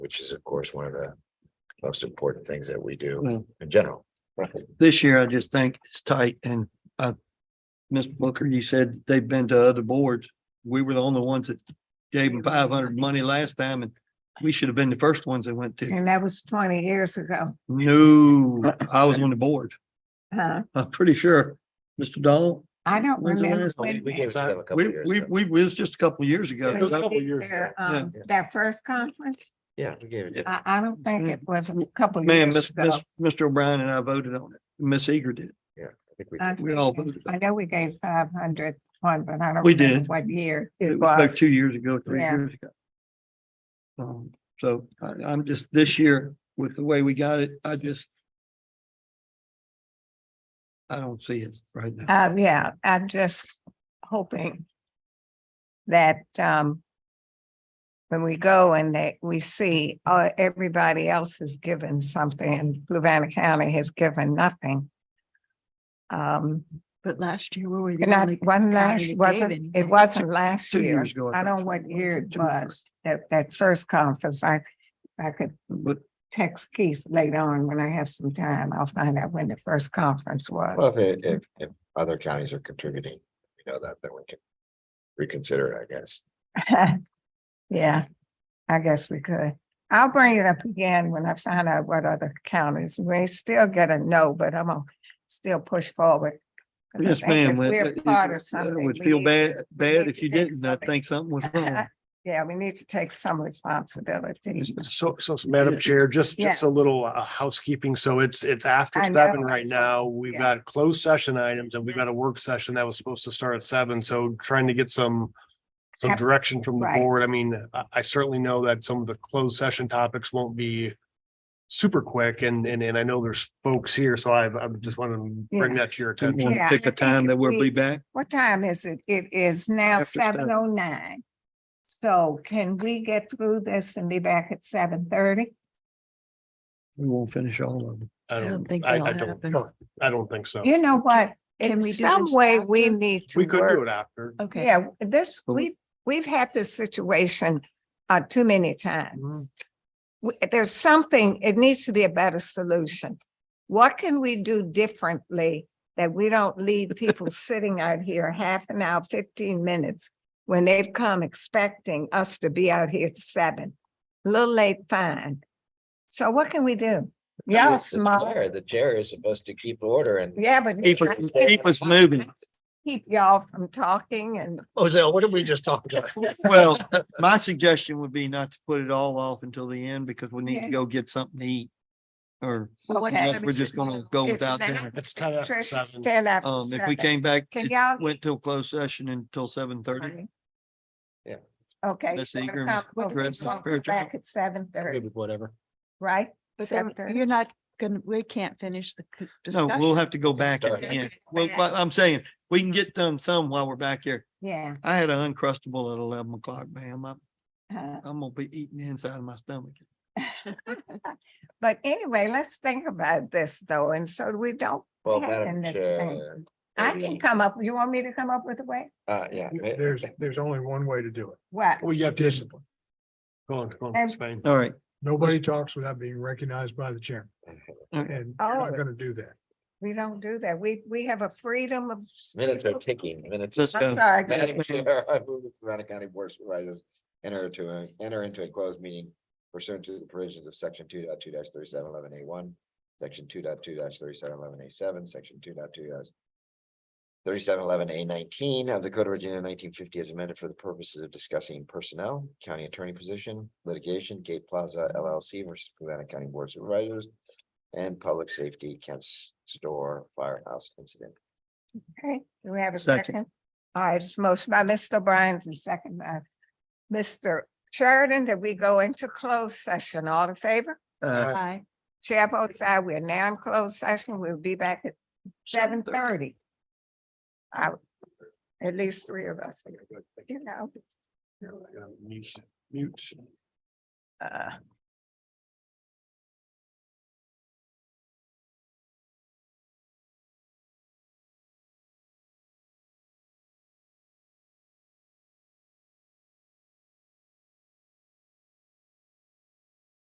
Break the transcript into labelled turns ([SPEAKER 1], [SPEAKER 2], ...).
[SPEAKER 1] which is of course one of the most important things that we do
[SPEAKER 2] Well-
[SPEAKER 1] in general.
[SPEAKER 2] This year, I just think it's tight and, uh, Ms. Booker, you said they've been to other boards. We were the only ones that gave them five hundred money last time and we should have been the first ones that went to.
[SPEAKER 3] And that was twenty years ago,
[SPEAKER 2] No, I was on the board.
[SPEAKER 3] huh?
[SPEAKER 2] I'm pretty sure. Mr. Donald,
[SPEAKER 3] I don't
[SPEAKER 2] When's the
[SPEAKER 3] remember.
[SPEAKER 2] last
[SPEAKER 1] We
[SPEAKER 3] when
[SPEAKER 1] we gave it to them a couple
[SPEAKER 2] we,
[SPEAKER 1] years
[SPEAKER 2] we,
[SPEAKER 1] ago.
[SPEAKER 2] we, it was just a couple of years ago.
[SPEAKER 1] Yeah,
[SPEAKER 3] they
[SPEAKER 1] it was a
[SPEAKER 2] That-
[SPEAKER 1] couple
[SPEAKER 3] did
[SPEAKER 1] years
[SPEAKER 3] their,
[SPEAKER 1] ago.
[SPEAKER 3] um, That first conference,
[SPEAKER 1] Yeah, we gave it.
[SPEAKER 3] I, I don't think it was a couple
[SPEAKER 2] Man,
[SPEAKER 3] years
[SPEAKER 2] Mm-hmm. Miss,
[SPEAKER 3] ago.
[SPEAKER 2] Miss- Mr. O'Brien and I voted on it. Miss Eager did.
[SPEAKER 1] I think we
[SPEAKER 3] I-
[SPEAKER 2] We all voted.
[SPEAKER 3] I know we gave five hundred one, but I don't.
[SPEAKER 2] We
[SPEAKER 3] remember
[SPEAKER 2] did.
[SPEAKER 3] What year
[SPEAKER 2] It
[SPEAKER 3] it
[SPEAKER 2] was like
[SPEAKER 3] was.
[SPEAKER 2] two years ago, three
[SPEAKER 3] Yeah.
[SPEAKER 2] years ago. Um, so I, I'm just, this year, with the way we got it, I just. I don't see it right now.
[SPEAKER 3] Uh, yeah, I'm just hoping that, um, when we go and that we see, uh, everybody else has given something and Fluvanna County has given nothing. Um,
[SPEAKER 4] But last year, where were you?
[SPEAKER 3] not one last,
[SPEAKER 4] that gave
[SPEAKER 3] wasn't, it
[SPEAKER 4] anything.
[SPEAKER 3] wasn't last
[SPEAKER 2] Two
[SPEAKER 3] year.
[SPEAKER 2] years ago.
[SPEAKER 3] I
[SPEAKER 2] thought.
[SPEAKER 3] don't know what year it
[SPEAKER 2] Two years.
[SPEAKER 3] was, that, that first conference, I, I could
[SPEAKER 2] But
[SPEAKER 3] text Keith later on when I have some time. I'll find out when the first conference was.
[SPEAKER 1] Well, if, it- if, if other counties are contributing, you know, that, then we can reconsider, it, I guess.
[SPEAKER 3] Yeah, I guess we could. I'll bring it up again when I find out what other counties, we still get a no, but I'm gonna still push forward. 'Cause I
[SPEAKER 2] yes,
[SPEAKER 3] think
[SPEAKER 2] ma'am.
[SPEAKER 3] if
[SPEAKER 2] that-
[SPEAKER 3] We're
[SPEAKER 2] that-
[SPEAKER 3] part
[SPEAKER 2] that
[SPEAKER 3] of something.
[SPEAKER 2] Would
[SPEAKER 3] we
[SPEAKER 2] feel
[SPEAKER 3] need-
[SPEAKER 2] bad, bad
[SPEAKER 3] need
[SPEAKER 2] if
[SPEAKER 3] to
[SPEAKER 2] you
[SPEAKER 3] take
[SPEAKER 2] didn't. I
[SPEAKER 3] something.
[SPEAKER 2] think something was wrong.
[SPEAKER 3] Yeah, we need to take some responsibility.
[SPEAKER 5] So, so so, Madam Chair, just, just a little uh, housekeeping. So it's, it's after
[SPEAKER 3] I
[SPEAKER 5] seven
[SPEAKER 3] know,
[SPEAKER 5] right
[SPEAKER 3] that's what-
[SPEAKER 5] now. We've
[SPEAKER 3] yeah.
[SPEAKER 5] got closed session items and we've got a work session that was supposed to start at seven. So trying to get some, some
[SPEAKER 3] Yep.
[SPEAKER 5] direction from the
[SPEAKER 3] Right.
[SPEAKER 5] board. I mean, I, I certainly know that some of the closed session topics won't be super quick and, and, and I know there's folks here. So I've, I just want to bring that to your
[SPEAKER 2] Do you
[SPEAKER 5] attention.
[SPEAKER 2] want
[SPEAKER 3] Yeah,
[SPEAKER 2] to
[SPEAKER 3] I
[SPEAKER 2] pick a
[SPEAKER 3] think
[SPEAKER 2] time
[SPEAKER 3] if
[SPEAKER 2] that we'll be
[SPEAKER 3] we-
[SPEAKER 2] back?
[SPEAKER 3] What time is it? It is now
[SPEAKER 2] After seven.
[SPEAKER 3] seven oh nine. So can we get through this and be back at seven thirty?
[SPEAKER 2] We won't finish all of them.
[SPEAKER 5] I
[SPEAKER 4] I don't
[SPEAKER 5] don't,
[SPEAKER 4] think
[SPEAKER 5] I,
[SPEAKER 4] that'll
[SPEAKER 5] I don't,
[SPEAKER 4] happen.
[SPEAKER 5] I don't think so.
[SPEAKER 3] You know what?
[SPEAKER 4] Can
[SPEAKER 3] In
[SPEAKER 4] we do
[SPEAKER 3] some
[SPEAKER 4] this
[SPEAKER 3] way, we
[SPEAKER 4] after?
[SPEAKER 3] need to
[SPEAKER 5] We could do
[SPEAKER 3] work.
[SPEAKER 5] it after.
[SPEAKER 4] Okay.
[SPEAKER 3] Yeah, this,
[SPEAKER 2] So-
[SPEAKER 3] we've, we've had this situation uh too many times. We- There's something, it needs to be a better solution. What can we do differently that we don't leave people sitting out here half an hour, fifteen minutes when they've come expecting us to be out here at seven? A Little late, fine. So what can we do? Y'all
[SPEAKER 1] It's the
[SPEAKER 3] smart.
[SPEAKER 1] chair. The chair is supposed to keep order and.
[SPEAKER 3] Yeah, but
[SPEAKER 2] Keep us, keep us moving.
[SPEAKER 3] keep y'all from talking and
[SPEAKER 1] Ozell, what did we just talk about?
[SPEAKER 2] Well, my suggestion would be not to put it all off until the end because we need to
[SPEAKER 3] Yeah.
[SPEAKER 2] go get something to eat. Or
[SPEAKER 4] But what
[SPEAKER 3] Okay.
[SPEAKER 2] unless
[SPEAKER 4] time
[SPEAKER 2] we're
[SPEAKER 4] is
[SPEAKER 2] just
[SPEAKER 4] it
[SPEAKER 2] gonna
[SPEAKER 4] now?
[SPEAKER 2] go
[SPEAKER 3] It's
[SPEAKER 2] without
[SPEAKER 3] now.
[SPEAKER 2] dinner.
[SPEAKER 5] It's ten after
[SPEAKER 3] Trish,
[SPEAKER 5] seven.
[SPEAKER 3] stand up. and
[SPEAKER 2] Um, if
[SPEAKER 3] step
[SPEAKER 2] we
[SPEAKER 3] back.
[SPEAKER 2] came back,
[SPEAKER 3] Can
[SPEAKER 2] it
[SPEAKER 3] y'all-
[SPEAKER 2] went to a closed session until seven thirty.
[SPEAKER 3] Sorry.
[SPEAKER 1] Yeah.
[SPEAKER 3] Okay.
[SPEAKER 2] Miss
[SPEAKER 3] so we'll
[SPEAKER 2] Ingram,
[SPEAKER 3] come-
[SPEAKER 2] Miss
[SPEAKER 3] we'll
[SPEAKER 2] Grant,
[SPEAKER 3] come
[SPEAKER 2] Miss Fairchild.
[SPEAKER 3] Back at seven thirty,
[SPEAKER 1] Whatever.
[SPEAKER 3] right?
[SPEAKER 4] But then
[SPEAKER 3] 7:30.
[SPEAKER 4] you're not gonna, we can't finish the c-
[SPEAKER 2] No,
[SPEAKER 4] discussion.
[SPEAKER 2] we'll have to go back at the
[SPEAKER 1] Sorry.
[SPEAKER 2] end. Well, but I'm saying, we can get done some while we're back here.
[SPEAKER 3] Yeah.
[SPEAKER 2] I had an uncrustable at eleven o'clock, ma'am. I'm,
[SPEAKER 3] uh,
[SPEAKER 2] I'm gonna be eating the inside of my stomach.
[SPEAKER 3] But anyway, let's think about this though, and so we don't,
[SPEAKER 1] Well,
[SPEAKER 3] Yeah,
[SPEAKER 1] Madam
[SPEAKER 3] and that's
[SPEAKER 1] Chair.
[SPEAKER 3] I can
[SPEAKER 1] maybe-
[SPEAKER 3] come up, you want me to come up with a way?
[SPEAKER 1] Uh, yeah. may-
[SPEAKER 6] There's, there's only one way to do it.
[SPEAKER 3] What?
[SPEAKER 5] Eh, Well, you have to,
[SPEAKER 6] Discipline.
[SPEAKER 5] go on, go on,
[SPEAKER 3] And-
[SPEAKER 5] Spain.
[SPEAKER 2] All right,
[SPEAKER 6] Nobody talks without being recognized by the chairman.
[SPEAKER 5] Uh,
[SPEAKER 6] And you're
[SPEAKER 3] Oh.
[SPEAKER 6] not gonna do that.
[SPEAKER 3] We don't do that. We, we have a freedom of.
[SPEAKER 1] Minutes are ticking, minutes.
[SPEAKER 2] let's
[SPEAKER 3] I'm
[SPEAKER 2] go.
[SPEAKER 3] sorry.
[SPEAKER 1] Madam
[SPEAKER 2] Yes, ma'am.
[SPEAKER 1] Chair, I move the Corona County Board of Supervisors enter to, a- enter into a closed meeting pursuant to the provisions of section 22 thirty-seven eleven A one, section 22 thirty-seven eleven A seven, section 22 Thirty-seven eleven A nineteen of the Code of Virginia nineteen fifty as amended for the purposes of discussing personnel, county attorney position, litigation, Gate Plaza LLC versus Corona County Board of Supervisors, and public safety, Kent's Store Firehouse incident.
[SPEAKER 3] Okay, do we have a
[SPEAKER 2] Second.
[SPEAKER 3] second? All right, it's motion by Mr. O'Brien and second by Mr. Sheridan, that we go into closed session. All in favor?
[SPEAKER 2] Uh,
[SPEAKER 4] Aye.
[SPEAKER 3] Chair votes aye. We are now in closed session. We'll be back at seven thirty. Uh, At least three of us, you know.
[SPEAKER 5] Mute, mute.
[SPEAKER 3] uh,